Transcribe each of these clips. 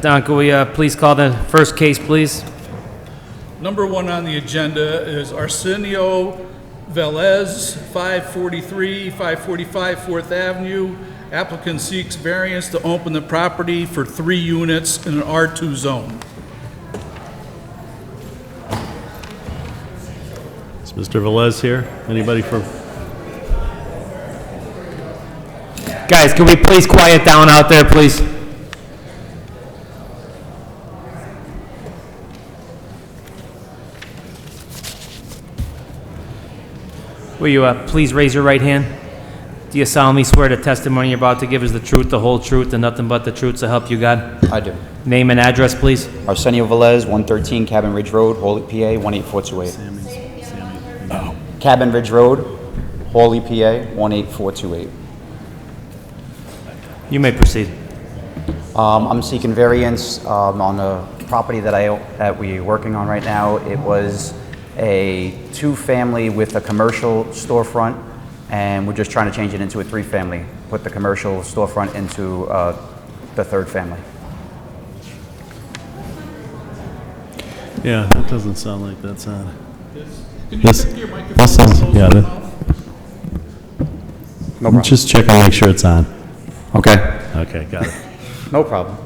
Don, could we uh, please call the first case, please? Number one on the agenda is Arsenio Velez, 543, 545 Fourth Avenue. Applicant seeks variance to open the property for three units in an R2 zone. Is Mr. Velez here? Anybody from? Guys, can we please quiet down out there, please? Will you uh, please raise your right hand? Do you solemnly swear the testimony you're about to give is the truth, the whole truth, and nothing but the truth to help you God? I do. Name and address, please. Arsenio Velez, 113 Cabin Ridge Road, Hawley, PA, 18428. Cabin Ridge Road, Hawley, PA, 18428. You may proceed. Um, I'm seeking variance um, on a property that I, that we're working on right now. It was a two-family with a commercial storefront, and we're just trying to change it into a three-family. Put the commercial storefront into uh, the third family. Yeah, that doesn't sound like that's on. Can you Yes. check your microphone? That sounds- Close yeah, your that- mouth. No problem. Just check and make sure it's on. Okay. Okay, got it. No problem.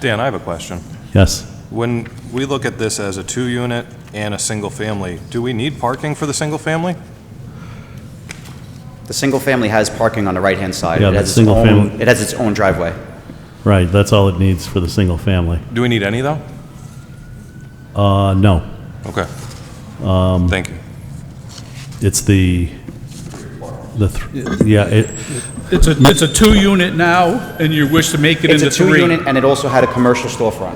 Dan, I have a question. Yes. When we look at this as a two-unit and a single-family, do we need parking for the single-family? The single family has parking on the right-hand side. Yeah, It the has its single own- family- It has its own driveway. Right, that's all it needs for the single family. Do we need any, though? Uh, no, Okay. Um, Thank you. it's the, the, th- yeah, it, It's a, it's a two-unit now, and you wish to make it It's into a three. two-unit, and it also had a commercial storefront.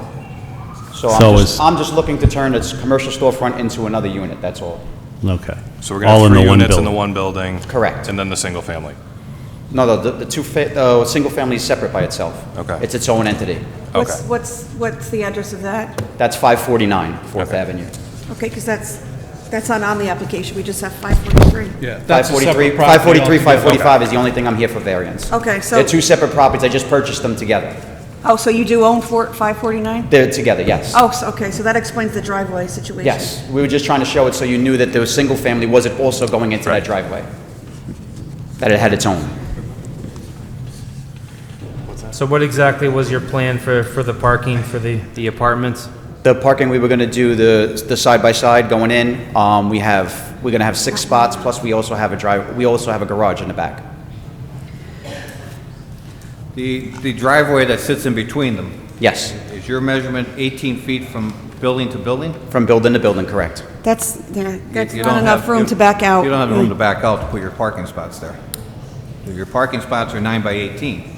So I'm So is- just, I'm just looking to turn its commercial storefront into another unit, that's all. okay. So we're going to All have in the three one units in the building. one building? Correct. And then the single-family? No, no, the, the two, fa- the single family is separate by itself. Okay. It's its own entity. Okay. What's, what's, what's the address of that? That's 549 Fourth Okay. Avenue. Okay, because that's, that's not on the application, we just have 543. Yeah, that's a separate 543, property 543, altogether. 545 is the only thing I'm here for variance. Okay, so- They're two separate properties, I just purchased them together. Oh, so you do own four- 549? They're together, yes. Oh, so- okay, so that explains the driveway situation. Yes, we were just trying to show it so you knew that the single family wasn't also going into that driveway. That it had its own. So what exactly was your plan for, for the parking for the, the apartments? The parking, we were going to do the, the side-by-side going in. Um, we have, we're going to have six spots, plus we also have a drive, we also have a garage in the back. The, the driveway that sits in between them, Yes, is your measurement 18 feet from building to building? from building to building, correct. That's, yeah, that's You not don't enough have- room you- to back out. Mm. You don't have room to back out to put your parking spots there. Your parking spots are nine by 18.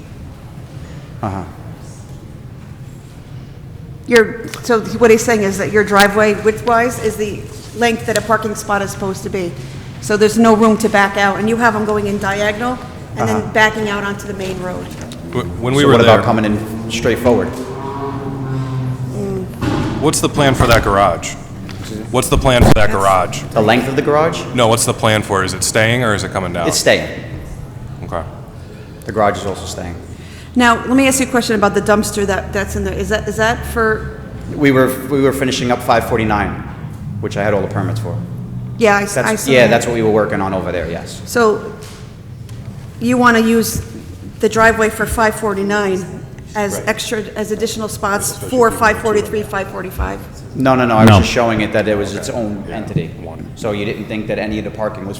Your, so what he's saying is that your driveway width-wise is the length that a parking spot is supposed to be. So there's no room to back out, and you have them going in diagonal and Uh-huh. then backing out onto the main road. Wh- When we So were what about there, coming in straight forward? what's the plan for that garage? What's the plan for that garage? The length of the garage? No, what's the plan for it? Is it staying or is it coming down? It's staying. Okay. The garage is also staying. Now, let me ask you a question about the dumpster that, that's in there. Is that, is that for, We were, we were finishing up 549, which I had all the permits for. yeah, I s- I That's, saw yeah, that. that's what we were working on over there, yes. So you want to use the driveway for 549 as extra, as additional spots for 543, 545? No, no, no, I was No. just showing it that it was its own entity. So you didn't think that any of the parking was